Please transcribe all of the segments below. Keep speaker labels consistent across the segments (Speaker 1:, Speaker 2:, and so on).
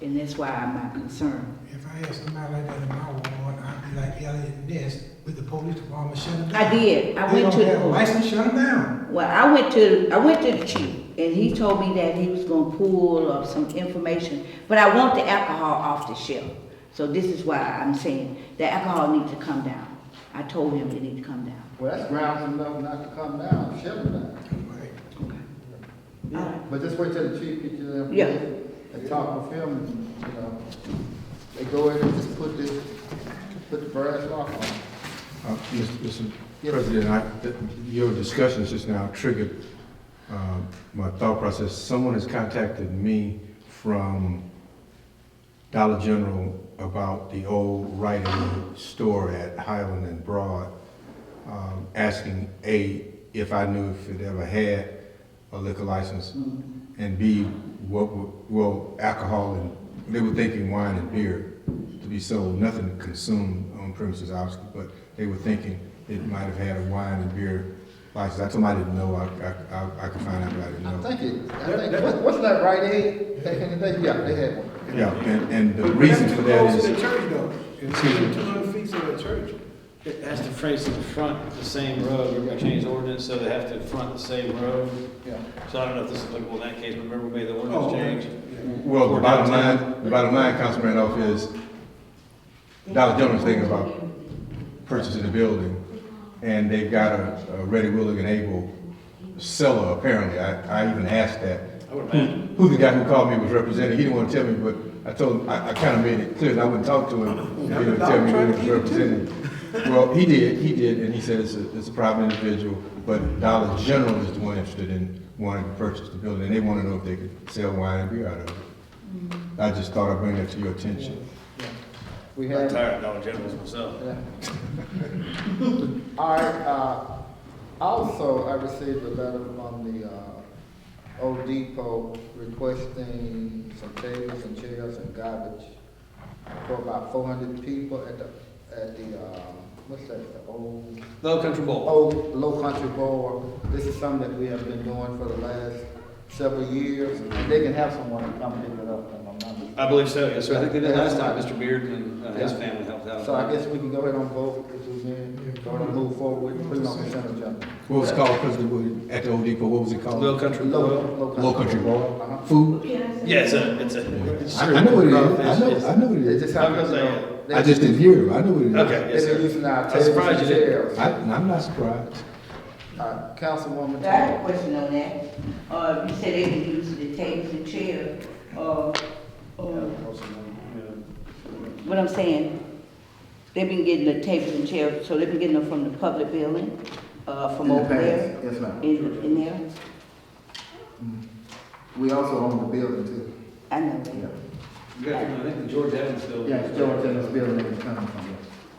Speaker 1: and that's why I'm not concerned.
Speaker 2: If I had somebody like that in my ward, I'd be like Elliot Ness with the police department shut them down.
Speaker 1: I did, I went to
Speaker 2: They don't
Speaker 1: the
Speaker 2: have a
Speaker 1: police.
Speaker 2: license, shut them down.
Speaker 1: Well, I went to, I went to the chief, and he told me that he was gonna pull up some information, but I want the alcohol off the shelf. So this is why I'm saying the alcohol needs to come down. I told him it need to come down.
Speaker 3: Well, that's grounds enough not to come down, shut them down.
Speaker 2: Right.
Speaker 1: Alright.
Speaker 3: But just wait till the chief gets you there.
Speaker 1: Yeah.
Speaker 3: And talk with him, and, you know, they go in and just put this, put the brass lock on.
Speaker 4: Uh, Mr.
Speaker 3: Yes.
Speaker 4: Mr. President, I, th- your discussions just now triggered um, my thought process. Someone has contacted me from Dollar General about the old writing store at Highland and Broad, um, asking A, if I knew if it ever had a liquor license, and B, what, would- well, alcohol and, they were thinking wine and beer to be sold, nothing consumed on premises, obviously, but they were thinking it might have had a wine and beer license. I told them I didn't know, I, I- I, I could find out, but I didn't know.
Speaker 3: I think it, I think, what- wasn't that right, Ed? Back in the day, yeah, they had one.
Speaker 4: Yeah, and, and the reason for that
Speaker 5: But that's too close to the
Speaker 4: is,
Speaker 5: church though. It's
Speaker 4: Excuse me.
Speaker 5: two hundred feet from the church.
Speaker 6: It has to face the front, the same road, we're gonna change the ordinance, so they have to front the same road.
Speaker 3: Yeah.
Speaker 6: So I don't know if this is applicable in that case, but remember we made the
Speaker 5: Oh,
Speaker 6: ordinance change?
Speaker 5: yeah.
Speaker 4: well, the bottom line, the bottom line, Councilman Randolph, is Dollar General's thinking about purchasing the building, and they've got a, a ready, willing, and able seller, apparently. I, I even asked that.
Speaker 6: I would
Speaker 3: Hmm.
Speaker 6: imagine.
Speaker 4: Who the guy who called me was representing, he didn't want to tell me, but I told him, I, I kind of made it clear that I wouldn't talk to him. He didn't tell me who he was representing. Well, he did, he did, and he said it's a, it's a private individual, but Dollar General is the one interested in wanting to purchase the building, and they want to know if they could sell wine and beer out of it. I just thought I'd bring that to your attention.
Speaker 3: We
Speaker 6: I'm
Speaker 3: had,
Speaker 6: tired of Dollar Generals myself.
Speaker 3: yeah. All right, uh, also, I received a letter from the, uh, Old Depot requesting some tables and chairs and garbage for about four hundred people at the, at the, uh, what's that, the old?
Speaker 6: Low Country Bowl.
Speaker 3: Oh, Low Country Bowl, this is something that we have been doing for the last several years. And They can have someone to come pick it up in a number.
Speaker 6: I believe so, yes, sir, I think they did last time, Mr. Beard and uh, his family helped out.
Speaker 3: So I guess we can go ahead and vote, because we can, go ahead and move forward, with putting on consent agenda.
Speaker 4: What was it called, President Wood, at the Old Depot, what was it called?
Speaker 6: Low Country Bowl.
Speaker 3: Low,
Speaker 4: Low Country Bowl.
Speaker 3: Uh-huh.
Speaker 4: Food?
Speaker 6: Yeah, it's a, it's a. it's
Speaker 4: I I know what it is, I
Speaker 6: it's-
Speaker 4: know,
Speaker 6: it's-
Speaker 4: I know what it
Speaker 3: They
Speaker 4: is.
Speaker 3: just have,
Speaker 6: I'm
Speaker 3: you
Speaker 6: gonna say
Speaker 3: know. they-
Speaker 4: I just didn't hear him, I know what it is.
Speaker 6: Okay, yes,
Speaker 3: They've been
Speaker 6: sir.
Speaker 3: using our
Speaker 6: I'm
Speaker 3: tables
Speaker 6: surprised
Speaker 3: and
Speaker 6: you didn't.
Speaker 3: chairs.
Speaker 4: I, I'm not surprised.
Speaker 3: Uh,
Speaker 1: I have
Speaker 3: Councilwoman
Speaker 1: a
Speaker 3: Taylor.
Speaker 1: question on that. Uh, you said they can use the tables and chairs, uh, uh, What I'm saying, they've been getting the tables and chairs, so they've been getting them from the public building, uh, from
Speaker 3: In the
Speaker 1: over there,
Speaker 3: past, Yes, ma'am.
Speaker 1: in, in there.
Speaker 3: We also own the building too.
Speaker 1: I know that.
Speaker 6: You gotta remember, I think the George Evans building.
Speaker 3: Yeah, George Taylor's building is coming from here.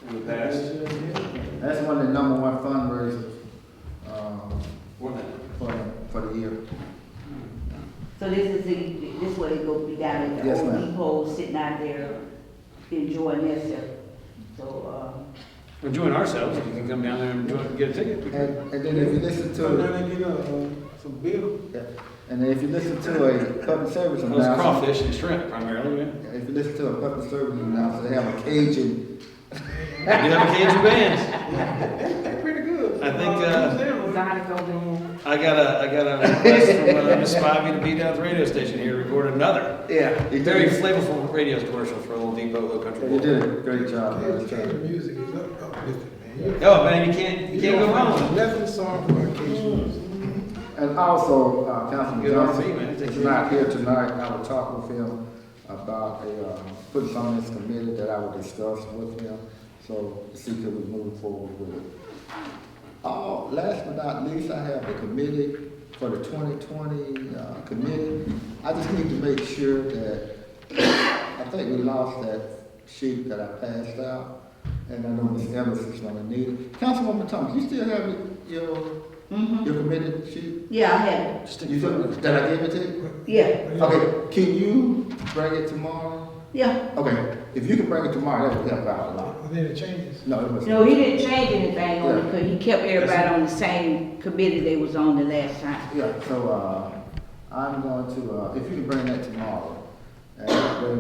Speaker 6: In the past,
Speaker 3: That's one of the number one fundraisers, um,
Speaker 6: wasn't it?
Speaker 3: for, for the year.
Speaker 1: So this is the, this way it go be down at the
Speaker 3: Yes,
Speaker 1: old
Speaker 3: ma'am.
Speaker 1: depot, sitting out there enjoying themselves. So, uh,
Speaker 6: enjoying ourselves, you can come down there and enjoy, get a ticket.
Speaker 3: And, and then if you listen
Speaker 5: So
Speaker 3: to,
Speaker 5: now they get, uh, some bill.
Speaker 3: yeah, and then if you listen to a public service
Speaker 6: Those
Speaker 3: announcement,
Speaker 6: crawfish and shrimp primarily, yeah.
Speaker 3: if you listen to a public service announcement, they have a Cajun.
Speaker 6: You have a Cajun band.
Speaker 5: That's pretty good.
Speaker 6: I think, uh,
Speaker 1: uh,
Speaker 5: Damn,
Speaker 6: I got a, I got a request from uh, Miss Spivey to be down at the radio station here to record another
Speaker 3: Yeah. They
Speaker 6: very
Speaker 3: did,
Speaker 6: flavorful radio commercial for Old Depot, Low Country.
Speaker 3: they
Speaker 6: Bowl.
Speaker 3: did a great job.
Speaker 5: Cajun,
Speaker 3: last
Speaker 5: Cajun
Speaker 3: time.
Speaker 5: music is up, uplifting, man. You-
Speaker 6: Oh, man, you can't, you can't
Speaker 5: don't
Speaker 6: go
Speaker 5: find
Speaker 6: wrong.
Speaker 5: Nothing sorry for Cajun
Speaker 1: Mm.
Speaker 5: music.
Speaker 3: And also, uh, Councilman
Speaker 6: Good R&B,
Speaker 3: Johnson
Speaker 6: man.
Speaker 3: is not here tonight, and I will talk with him about a, uh, putting something in this committee that I will discuss with him, so to see if we move forward with it. Uh, last but not least, I have the committee for the twenty twenty, uh, committee. I just need to make sure that, I think we lost that sheet that I passed out, and I know Ms. Evans is gonna need it. Councilwoman Thomas, you still have your,
Speaker 1: uh, mhm.
Speaker 3: your committee sheet?
Speaker 1: yeah, I had,
Speaker 3: You took, did I give it to you?
Speaker 1: it. yeah,
Speaker 3: Okay, can you bring it tomorrow?
Speaker 1: yeah.
Speaker 3: Okay, if you can bring it tomorrow, that would help out a lot.
Speaker 5: I think it changes.
Speaker 3: No, it wasn't.
Speaker 1: No, he didn't change anything on it, because he kept everybody on the same committee they was on the last time.
Speaker 3: Yeah, so, uh, I'm going to, uh, if you can bring that tomorrow, and bring